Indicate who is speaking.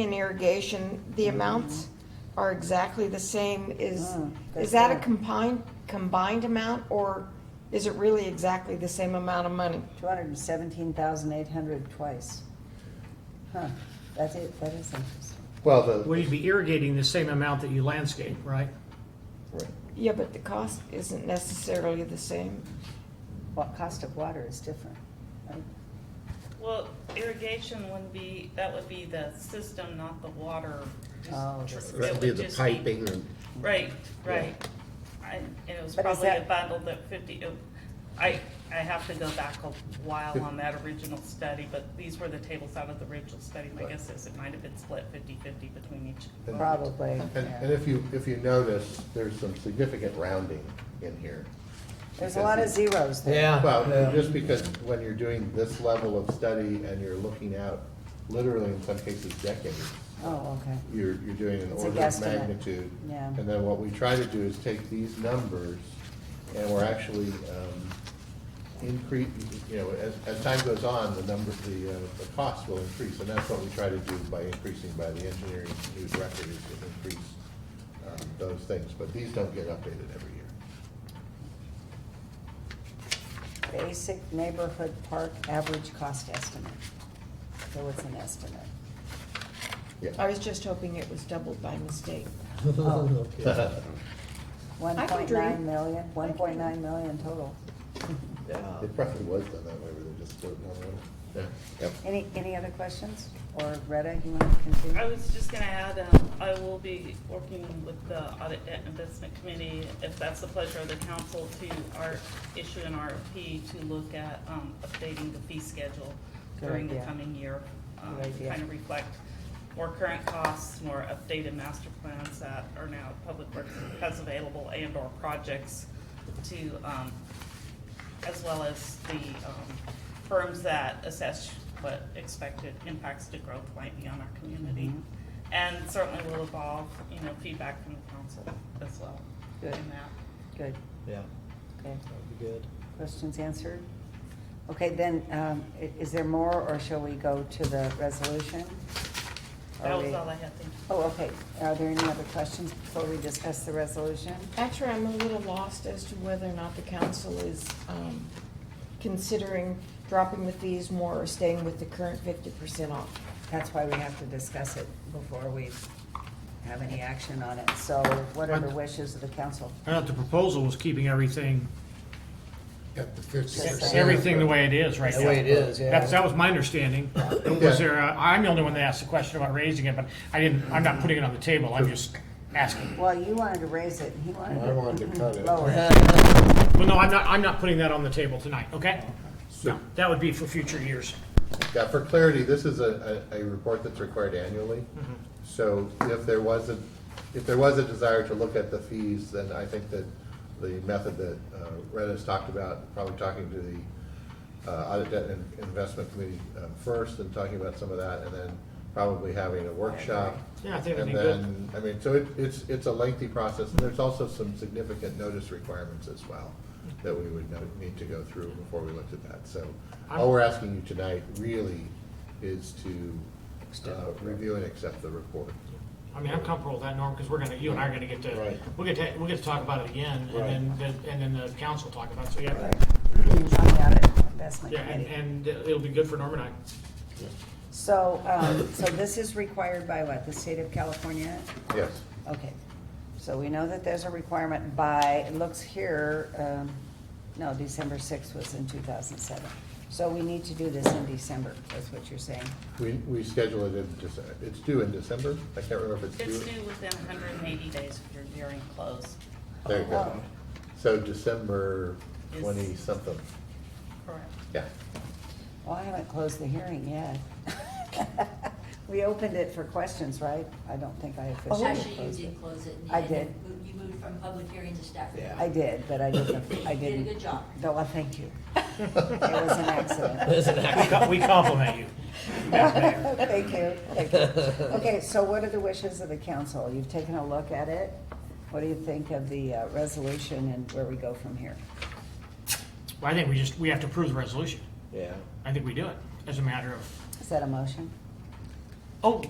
Speaker 1: in irrigation, the amounts are exactly the same, is,
Speaker 2: Oh, good
Speaker 1: is that a
Speaker 2: point.
Speaker 1: combined, combined amount, or is it really exactly the same amount of money?
Speaker 2: Two hundred and seventeen thousand eight hundred twice. Huh, that's it, that is interesting.
Speaker 3: Well, the,
Speaker 4: Well, you'd be irrigating the same amount that you landscape, right?
Speaker 3: right.
Speaker 1: Yeah, but the cost isn't necessarily the same.
Speaker 2: What cost of water is different, right?
Speaker 5: Well, irrigation would be, that would be the system, not the water. Just-
Speaker 2: Oh,
Speaker 5: tr-
Speaker 2: this is-
Speaker 5: it
Speaker 3: that'd
Speaker 5: would
Speaker 3: be the
Speaker 5: just
Speaker 3: piping and,
Speaker 5: Right, right. I- And it was
Speaker 2: But is
Speaker 5: probably a
Speaker 2: that-
Speaker 5: bundle that fifty, oh, I, I have to go back a while on that original study, but these were the tables out of the original study. My
Speaker 3: Right.
Speaker 5: guess is it might have been split fifty-fifty between each.
Speaker 3: And-
Speaker 2: Probably,
Speaker 3: and, and
Speaker 2: yeah.
Speaker 3: if you, if you notice, there's some significant rounding in here.
Speaker 2: There's a lot of zeros there.
Speaker 3: Well, just because when you're doing this level of study and you're looking out, literally in some cases decades,
Speaker 2: Oh, okay.
Speaker 3: you're, you're doing an
Speaker 2: It's a
Speaker 3: order of
Speaker 2: guesstimate.
Speaker 3: magnitude.
Speaker 2: Yeah.
Speaker 3: And then what we try to do is take these numbers, and we're actually um, increase, you know, as, as time goes on, the number, the, uh, the cost will increase, and that's what we try to do by increasing by the engineering new record is to increase um, those things, but these don't get updated every year.
Speaker 2: Basic neighborhood park average cost estimate. So it's an estimate.
Speaker 1: I
Speaker 3: Yeah,
Speaker 1: was just hoping it was doubled by mistake.
Speaker 2: Oh, One
Speaker 1: I can
Speaker 2: point
Speaker 1: dream.
Speaker 2: nine million, one point nine million total.
Speaker 3: it probably was done that way, where they're just floating on the water. Yep.
Speaker 2: Any, any other questions? Or Retta, you want to continue?
Speaker 5: I was just gonna add, um, I will be working with the Audit and Investment Committee, if that's the pleasure of the council, to our, issue an RFP to look at, um, updating the fee schedule
Speaker 2: Good
Speaker 5: during the
Speaker 2: idea.
Speaker 5: coming year. um,
Speaker 2: Good idea.
Speaker 5: Kind of reflect more current costs, more updated master plans that are now Public Works has available and or projects to, um, as well as the, um, firms that assess what expected impacts to growth might be on our community.
Speaker 2: Mhm.
Speaker 5: And certainly will evolve, you know, feedback from the council as well in
Speaker 2: Good.
Speaker 5: that.
Speaker 2: Good,
Speaker 6: Yeah,
Speaker 2: okay.
Speaker 6: that would be good.
Speaker 2: Questions answered? Okay, then, um, i- is there more, or shall we go to the resolution? Are
Speaker 5: That
Speaker 2: we-
Speaker 5: was all I had, thank you.
Speaker 2: Oh, okay. Are there any other questions before we discuss the resolution?
Speaker 1: Actually, I'm a little lost as to whether or not the council is um, considering dropping the fees more or staying with the current fifty percent off.
Speaker 2: That's why we have to discuss it before we have any action on it. So what are the wishes of the council?
Speaker 4: I thought the proposal was keeping everything,
Speaker 7: At the fifty
Speaker 2: Yes,
Speaker 7: percent.
Speaker 2: sir.
Speaker 4: everything the way it is right now.
Speaker 6: The way it is,
Speaker 4: That's, that
Speaker 6: yeah.
Speaker 4: was my understanding.
Speaker 3: Yeah.
Speaker 4: Was there, a- I'm the only one that asked the question about raising it, but I didn't, I'm not putting it on the table, I'm just asking.
Speaker 2: Well, you wanted to raise it, and he wanted
Speaker 7: I
Speaker 2: to
Speaker 7: wanted to cut it.
Speaker 2: lower it.
Speaker 4: Well, no, I'm not, I'm not putting that on the table tonight, okay? No, that would be for future years.
Speaker 3: Yeah, for clarity, this is a, a, a report that's required annually.
Speaker 4: Mm-hmm.
Speaker 3: So if there was a, if there was a desire to look at the fees, then I think that the method that uh, Retta's talked about, probably talking to the uh, Audit Debt and Investment Committee um, first and talking about some of that, and then probably having a workshop.
Speaker 4: Yeah, I think that'd
Speaker 3: And
Speaker 4: be good.
Speaker 3: then, I mean, so it, it's, it's a lengthy process, and there's also some significant notice requirements as well that we would know- need to go through before we looked at that, so.
Speaker 4: I'm-
Speaker 3: All we're asking you tonight really is to uh, review and accept the report.
Speaker 4: I mean, I'm comfortable with that, Norm, because we're gonna, you and I are gonna get to,
Speaker 3: Right.
Speaker 4: we'll get to, we'll get to talk about it again, and then, and then the council talk about it, so yeah.
Speaker 2: I'm at it, investment
Speaker 4: Yeah,
Speaker 2: committee.
Speaker 4: and, and it'll be good for Norm and I.
Speaker 2: So, um, so this is required by what, the state of California?
Speaker 3: Yes,
Speaker 2: Okay, so we know that there's a requirement by, it looks here, um, no, December sixth was in two thousand seven. So we need to do this in December, that's what you're saying.
Speaker 3: we, we schedule it in December, it's due in December, I can't remember if it's
Speaker 5: It's
Speaker 3: due.
Speaker 5: due within hundred and eighty days of your hearing close,
Speaker 3: There you go.
Speaker 2: Oh.
Speaker 3: So December
Speaker 5: Is-
Speaker 3: twenty-something,
Speaker 5: correct?
Speaker 3: yeah.
Speaker 2: Well, I haven't closed the hearing yet. We opened it for questions, right? I don't think I officially
Speaker 8: Oh, Actually, you
Speaker 2: closed it.
Speaker 8: did close it. in the
Speaker 2: Oh. I
Speaker 8: end.
Speaker 2: did.
Speaker 8: You moved from public hearing to staff.
Speaker 6: Yeah.
Speaker 2: I did, but I didn't, I
Speaker 8: You did a
Speaker 2: didn't.
Speaker 8: good job.
Speaker 2: No, well, thank you. It was an accident.
Speaker 6: There's an
Speaker 4: We
Speaker 6: act-
Speaker 4: co- We compliment you. Madam Mayor.
Speaker 2: Thank you, thank you. Okay, so what are the wishes of the council? You've taken a look at it. What do you think of the uh, resolution and where we go from here?
Speaker 4: Well, I think we just, we have to approve the resolution.
Speaker 6: Yeah.
Speaker 4: I think we do it as a matter of,
Speaker 2: Is that a motion?
Speaker 4: oh,